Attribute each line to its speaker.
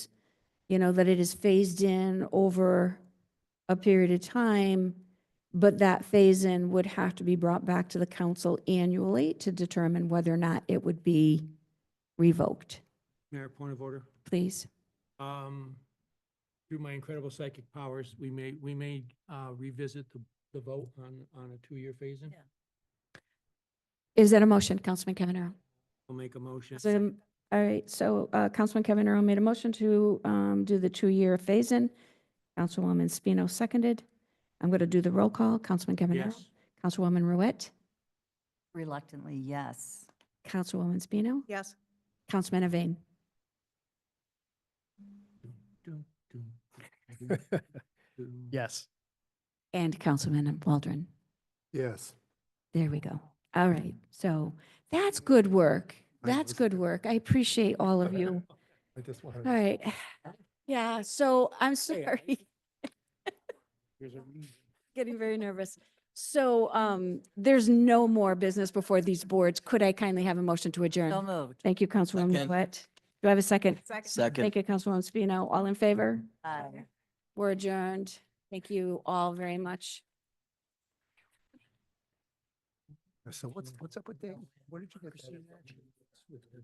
Speaker 1: you know, that it is phased in over a period of time, but that phase in would have to be brought back to the council annually to determine whether or not it would be revoked.
Speaker 2: Mayor, point of order.
Speaker 1: Please.
Speaker 2: Um, Through my incredible psychic powers, we may, we may uh, revisit the, the vote on, on a two-year phase-in.
Speaker 1: Is that a motion, Councilman Kevin Arrow?
Speaker 2: I'll make a motion.
Speaker 1: So, um, all right, so uh, Councilman Kevin Arrow made a motion to um, do the two-year phase-in. Councilwoman Spino seconded. I'm going to do the roll call. Councilman Kevin Arrow.
Speaker 2: Yes.
Speaker 1: Councilwoman Ruette.
Speaker 3: Reluctantly, yes.
Speaker 1: Councilwoman Spino.
Speaker 3: Yes.
Speaker 1: Councilman Iveyne.
Speaker 2: Dun, dun, dun, dun, dun.
Speaker 4: Yes.
Speaker 1: And Councilman Waldron.
Speaker 5: Yes.
Speaker 1: There we go. All right, so that's good work.
Speaker 5: I
Speaker 1: That's
Speaker 5: was-
Speaker 1: good work. I appreciate all of you.
Speaker 5: I just wanted.
Speaker 1: All right. Yeah, so I'm sorry.
Speaker 2: There's a reason.
Speaker 1: Getting very nervous. So um, there's no more business before these boards. Could I kindly have a motion to
Speaker 3: So
Speaker 1: adjourn?
Speaker 3: moved.
Speaker 1: Thank you, Councilwoman
Speaker 6: Second.
Speaker 1: Wet. Do I have a second?
Speaker 6: Second.
Speaker 1: Thank you, Councilwoman Spino. All in favor?
Speaker 3: Aye.
Speaker 1: We're adjourned. Thank you all very much.
Speaker 5: So what's, what's up with that? Where did you get that?